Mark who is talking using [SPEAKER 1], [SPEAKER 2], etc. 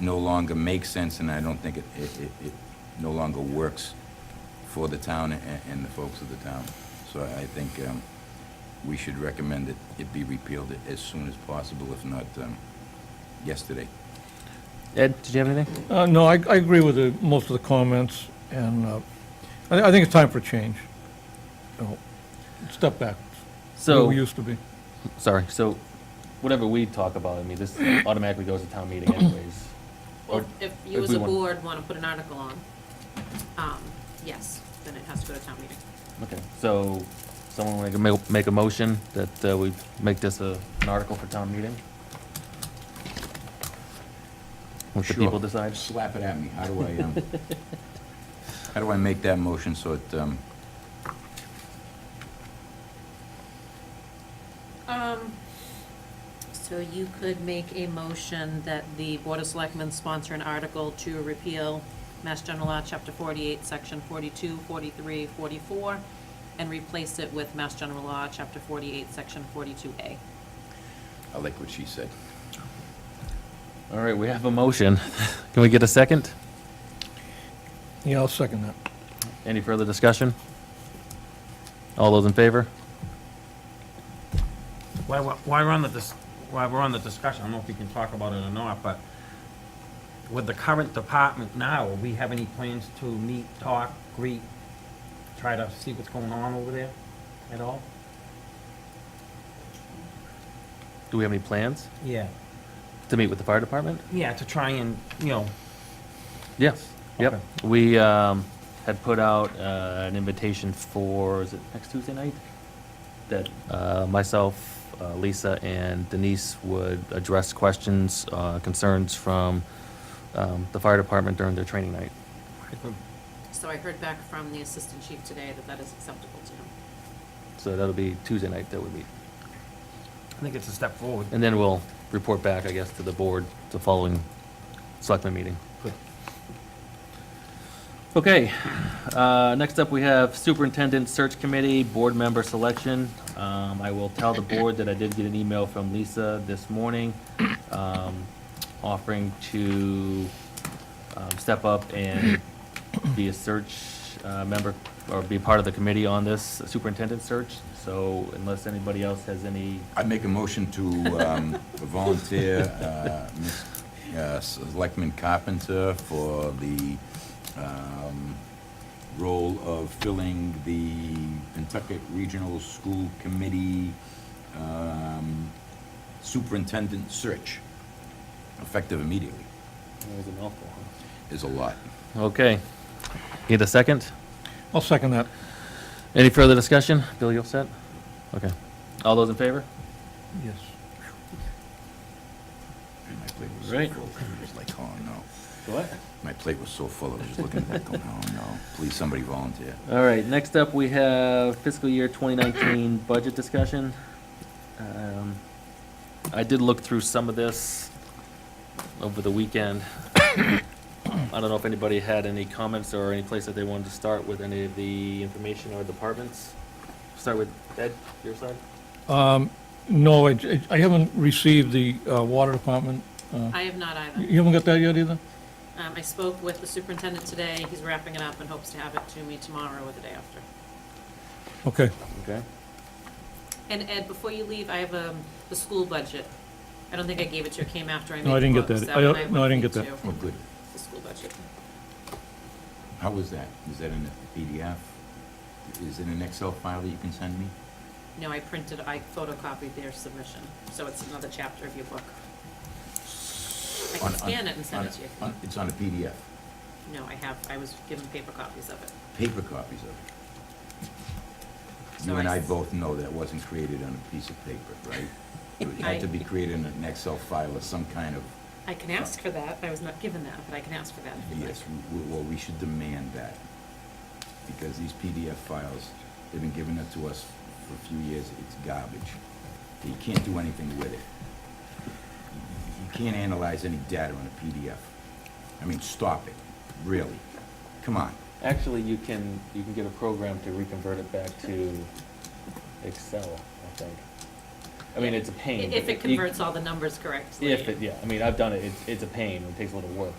[SPEAKER 1] no longer makes sense, and I don't think it, it, it- it no longer works for the town and, and the folks of the town. So I think um, we should recommend that it be repealed as soon as possible, if not um, yesterday.
[SPEAKER 2] Ed, did you have anything?
[SPEAKER 3] Uh, No, I, I agree with the, most of the comments, and uh, I, I think it's time for change. You know, Step back, where
[SPEAKER 2] So,
[SPEAKER 3] we used to be.
[SPEAKER 2] sorry, so whatever we talk about, I mean, this automatically goes to town meeting anyways.
[SPEAKER 4] Well,
[SPEAKER 2] Or
[SPEAKER 4] if you
[SPEAKER 2] if
[SPEAKER 4] as
[SPEAKER 2] we
[SPEAKER 4] a
[SPEAKER 2] want-
[SPEAKER 4] board want to put an article on, um, yes, then it has to go to town meeting.
[SPEAKER 2] Okay, so someone want to make, make a motion that uh, we make this a, an article for town meeting? Let the
[SPEAKER 1] Sure.
[SPEAKER 2] people decide?
[SPEAKER 1] Slap it at me. How do I, um, how do I make that motion so it, um,
[SPEAKER 4] Um, so you could make a motion that the Board of Selectmen sponsor an article to repeal Mass General Law, Chapter forty-eight, Section 42, 43, 44, and replace it with Mass General Law, Chapter forty-eight, Section forty-two A.
[SPEAKER 1] I like what she said.
[SPEAKER 2] All right, we have a motion. Can we get a second?
[SPEAKER 3] Yeah, I'll second that.
[SPEAKER 2] Any further discussion? All those in favor?
[SPEAKER 5] Why, why- why we're on the, dis- why we're on the discussion, I don't know if we can talk about it or not, but with the current department now, we have any plans to meet, talk, greet, try to see what's going on over there at all?
[SPEAKER 2] Do we have any plans
[SPEAKER 5] Yeah.
[SPEAKER 2] to meet with the fire department?
[SPEAKER 5] Yeah, to try and, you know,
[SPEAKER 2] Yes, yep.
[SPEAKER 5] Okay.
[SPEAKER 2] We um, had put out uh, an invitation for, is it next Tuesday night? That uh, myself, uh, Lisa, and Denise would address questions, uh, concerns from um, the fire department during their training night.
[SPEAKER 5] if we-
[SPEAKER 4] So I heard back from the Assistant Chief today that that is acceptable to him.
[SPEAKER 2] So that'll be Tuesday night that we meet.
[SPEAKER 5] I think it's a step forward.
[SPEAKER 2] And then we'll report back, I guess, to the board the following selectman meeting.
[SPEAKER 5] Good.
[SPEAKER 2] Okay, uh, next up, we have Superintendent Search Committee, Board Member Selection. Um, I will tell the board that I did get an email from Lisa this morning um, offering to um, step up and be a search uh, member, or be part of the committee on this superintendent search. So unless anybody else has any
[SPEAKER 1] I make a motion to um, volunteer uh, Ms. uh, Selectman Carpenter for the um, role of filling the Pentucket Regional School Committee um, Superintendent Search, effective immediately, is a lot.
[SPEAKER 2] Okay. Need a second?
[SPEAKER 3] I'll second that.
[SPEAKER 2] Any further discussion? Bill, you all set? Okay. All those in favor?
[SPEAKER 3] Yes.
[SPEAKER 1] My plate was so
[SPEAKER 2] Right.
[SPEAKER 1] full, it was like, oh, no.
[SPEAKER 2] What?
[SPEAKER 1] My plate was so full, I was just looking at it going, oh, no, please, somebody volunteer.
[SPEAKER 2] All right, next up, we have fiscal year 2019 budget discussion. Um, I did look through some of this over the weekend. I don't know if anybody had any comments or any place that they wanted to start with any of the information or departments. Start with Ed, your side?
[SPEAKER 3] Um, No, I, I haven't received the uh, water department. uh,
[SPEAKER 4] I have not either.
[SPEAKER 3] You haven't got that yet either?
[SPEAKER 4] Um, I spoke with the superintendent today. He's wrapping it up and hopes to have it to me tomorrow or the day after.
[SPEAKER 3] Okay.
[SPEAKER 2] Okay.
[SPEAKER 4] And Ed, before you leave, I have um, the school budget. I don't think I gave it to you, it came after I made
[SPEAKER 3] No, I didn't get
[SPEAKER 4] books.
[SPEAKER 3] that.
[SPEAKER 4] That
[SPEAKER 3] I
[SPEAKER 4] one
[SPEAKER 3] don't- no, I
[SPEAKER 4] went
[SPEAKER 3] didn't get
[SPEAKER 4] into
[SPEAKER 1] Oh, good.
[SPEAKER 4] The school budget.
[SPEAKER 1] How was that? Is that in a PDF? Is it an Excel file that you can send me?
[SPEAKER 4] No, I printed, I photocopied their submission, so it's another chapter of your book. I
[SPEAKER 1] On-
[SPEAKER 4] can
[SPEAKER 1] on-
[SPEAKER 4] scan it and
[SPEAKER 1] on
[SPEAKER 4] send it
[SPEAKER 1] a-
[SPEAKER 4] to you.
[SPEAKER 1] on- It's on a PDF,
[SPEAKER 4] No, I have, I was given paper copies of it.
[SPEAKER 1] paper copies of it. You
[SPEAKER 4] So
[SPEAKER 1] and
[SPEAKER 4] I
[SPEAKER 1] I
[SPEAKER 4] s-
[SPEAKER 1] both know that wasn't created on a piece of paper, right? It would
[SPEAKER 4] I-
[SPEAKER 1] have to be created in an Excel file or some kind of,
[SPEAKER 4] I can ask for that, I was not given that, but I can ask for that if you'd like.
[SPEAKER 1] yes, we- we- well, we should demand that. Because these PDF files, they've been giving it to us for a few years, it's garbage. You can't do anything with it. You can't analyze any data on a PDF. I mean, stop it, really. Come on.
[SPEAKER 2] Actually, you can, you can get a program to reconvert it back to Excel, I think. I mean, it's a pain.
[SPEAKER 4] If
[SPEAKER 2] but
[SPEAKER 4] it
[SPEAKER 2] you-
[SPEAKER 4] converts all the numbers correctly.
[SPEAKER 2] If it, yeah, I mean, I've done it, it's, it's a pain, it takes a little work,